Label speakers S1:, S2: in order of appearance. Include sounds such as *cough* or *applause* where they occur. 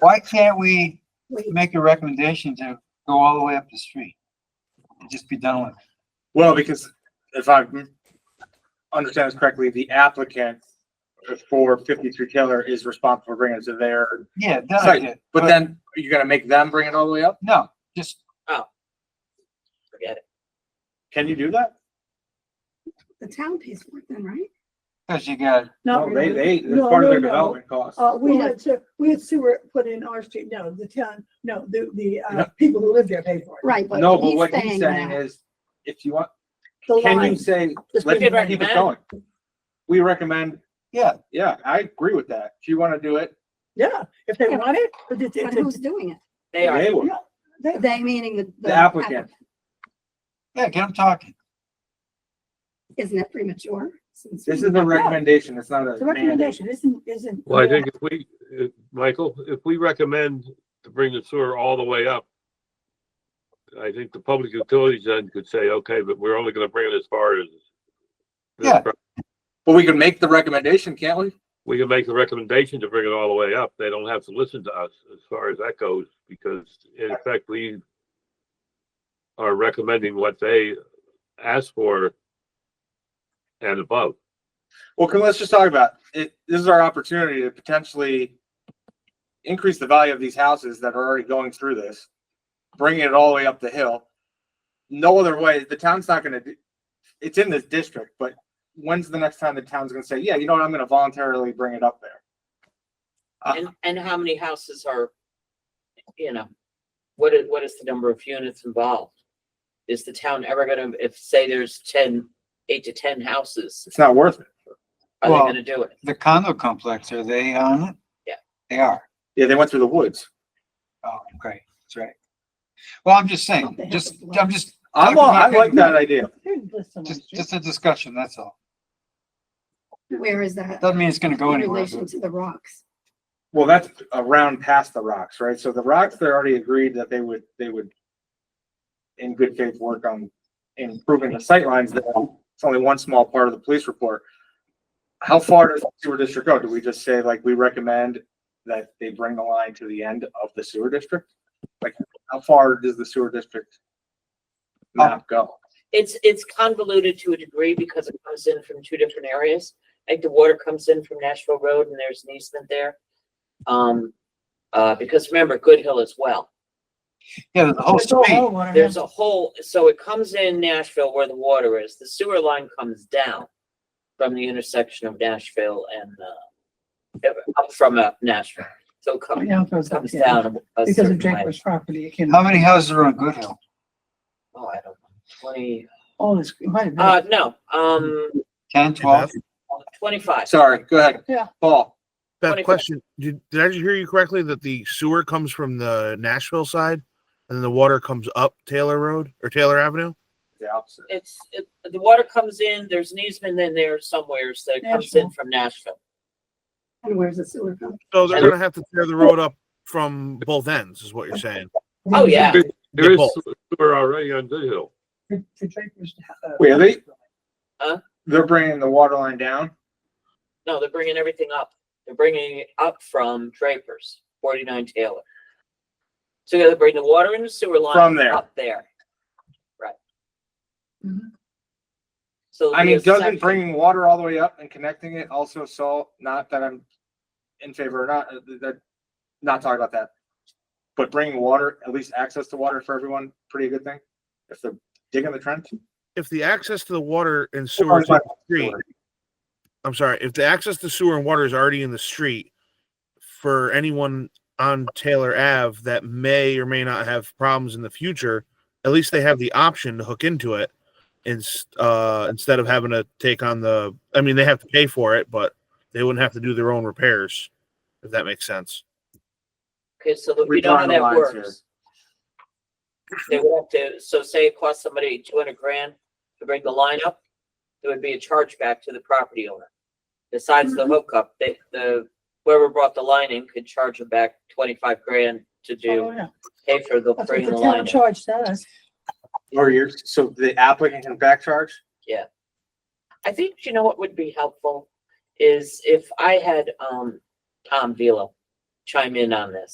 S1: Why can't we make a recommendation to go all the way up the street? And just be done with it?
S2: Well, because if I understand this correctly, the applicant for fifty-three Taylor is responsible for bringing it to their,
S1: Yeah, done
S2: Sorry,
S1: with it.
S2: but then you gotta make them bring it all the way up?
S1: No, just,
S3: Forget it.
S2: Can you do that?
S4: The town pays for it then, right?
S1: cause you got,
S5: Not
S2: No, They,
S5: really.
S2: they, it's
S5: No,
S2: part of
S5: no,
S2: their
S5: no.
S2: development cost.
S5: Uh, we had, se- we had sewer put in our street, no, the town, no, the, the, uh,
S2: No.
S5: people who live there paid for it.
S4: Right, but
S2: No, but
S4: he's
S2: what
S4: saying
S2: he's saying
S4: that.
S2: is, if you want,
S5: The
S2: can you
S5: line,
S2: say,
S5: Just
S2: let's
S5: we did
S2: keep it going?
S3: recommend.
S2: We recommend,
S1: yeah,
S2: yeah, I agree with that. If you wanna do it,
S5: yeah, if they
S4: Yeah.
S5: want it, but it's,
S4: But
S5: it's,
S4: who's doing
S2: *laughs*
S4: it?
S3: They are.
S2: they will.
S5: Yeah. they-
S4: They meaning the.
S2: The applicant.
S1: yeah, get them talking.
S4: Isn't it premature? since
S2: This
S4: we-
S2: is a recommendation, it's not
S5: it's
S2: a
S5: a
S2: mandate.
S5: recommendation isn't, isn't.
S6: Well, I think if we, if- Michael, if we recommend to bring the sewer all the way up, I think the public utilities then could say, okay, but we're only gonna bring it as far as. this
S1: Yeah.
S6: pro-
S2: But we can make the recommendation, can't we?
S6: We can make the recommendation to bring it all the way up. They don't have to listen to us as far as that goes, because in effect, we are recommending what they ask for and above.
S2: Well, can, let's just talk about it. This is our opportunity to potentially increase the value of these houses that are already going through this, bringing it all the way up the hill. No other way, the town's not gonna, do- it's in this district, but when's the next time the town's gonna say, yeah, you know what, I'm gonna voluntarily bring it up there?
S3: And, and how many houses are, you know, what is, what is the number of units involved? Is the town ever gonna, if, say there's ten, eight to ten houses,
S2: It's not worth it.
S3: are they
S1: Well-
S3: gonna do it?
S1: The condo complex, are they on it?
S3: Yeah.
S1: They are.
S2: Yeah, they went through the woods.
S1: Oh, great, that's right. Well, I'm just saying,
S5: They have
S1: just,
S5: a
S1: I'm just,
S2: I'm, all- I like that idea.
S5: They didn't list them on the
S1: just,
S5: street.
S1: just a discussion, that's all.
S4: Where is that
S1: Doesn't mean it's gonna go
S4: in
S1: anywhere.
S4: relation to the rocks?
S2: Well, that's around past the rocks, right? So the rocks, they already agreed that they would, they would in good faith work on improving the sightlines there. It's only one small part of the police report. How far does the sewer district go? Do we just say like, we recommend that they bring the line to the end of the sewer district? Like, how far does the sewer district map go?
S3: It's, it's convoluted to a degree because it comes in from two different areas. Like the water comes in from Nashville Road and there's an easement there. Um, uh, because remember, Good Hill as well.
S1: Yeah, the whole
S5: It's all
S1: street,
S5: homeowner,
S3: There's a hole, so it comes in Nashville where the water is. The sewer line comes down from the intersection of Nashville and, uh, up from uh, Nashville. So it
S5: yeah.
S3: comes,
S5: Yeah, it goes up,
S3: comes
S5: yeah.
S3: down a
S5: Because of
S3: certain way.
S5: Jack's property, it can,
S1: how many houses are on Good Hill?
S3: Oh, I don't know, twenty,
S5: all this, it might have been.
S3: uh, no, um,
S1: Ten, twelve?
S3: twenty-five.
S2: Sorry, go ahead.
S5: Yeah.
S2: Paul,
S7: Beth,
S3: 25.
S7: question, did, did I hear you correctly that the sewer comes from the Nashville side and then the water comes up Taylor Road or Taylor Avenue?
S2: the opposite.
S3: It's, it, the water comes in, there's an easement in there somewhere, so it comes in
S5: Nashville.
S3: from Nashville.
S4: And where's the sewer coming?
S7: So they're
S3: And-
S7: gonna have to tear the road up from both ends is what you're saying.
S3: Oh, yeah.
S6: There is
S7: both.
S6: sewer already on Good Hill.
S5: To- to Draper's, uh,
S2: Wait, are they?
S3: Huh?
S2: They're bringing the water line down?
S3: No, they're bringing everything up. They're bringing it up from Draper's, forty-nine Taylor. So they're bringing the water and the sewer line.
S2: From there.
S3: Up there. Right.
S4: Mhm.
S3: So. there'll
S2: I
S3: be
S2: mean,
S3: a
S2: doesn't
S3: section-
S2: bringing water all the way up and connecting it also solve, not that I'm in favor or not, uh, th- that, not talking about that. But bringing water, at least access to water for everyone, pretty good thing, if they're digging the trench.
S7: If the access to the water and
S2: Or
S7: sewer
S2: is
S7: is in
S2: that-
S7: the street, I'm sorry, if the access to sewer and water is already in the street for anyone on Taylor Ave that may or may not have problems in the future, at least they have the option to hook into it. Ins- uh, instead of having to take on the, I mean, they have to pay for it, but they wouldn't have to do their own repairs, if that makes sense.
S3: Okay, so that we know how
S2: Redrawing the
S3: that
S2: lines
S3: works. They would have to, so say it costs somebody two hundred grand to bring the line up, there would be a chargeback to the property owner. Besides the hookup, they, the, whoever brought the line in could charge them back twenty-five grand to
S5: oh,
S3: do,
S5: yeah.
S3: pay for the
S5: That's what
S3: bringing
S5: the
S3: the line
S5: town
S3: in.
S5: charged us.
S2: Or you're, so the applicant can back charge?
S3: I think, you know what would be helpful is if I had, um, Tom Velo chime in on this.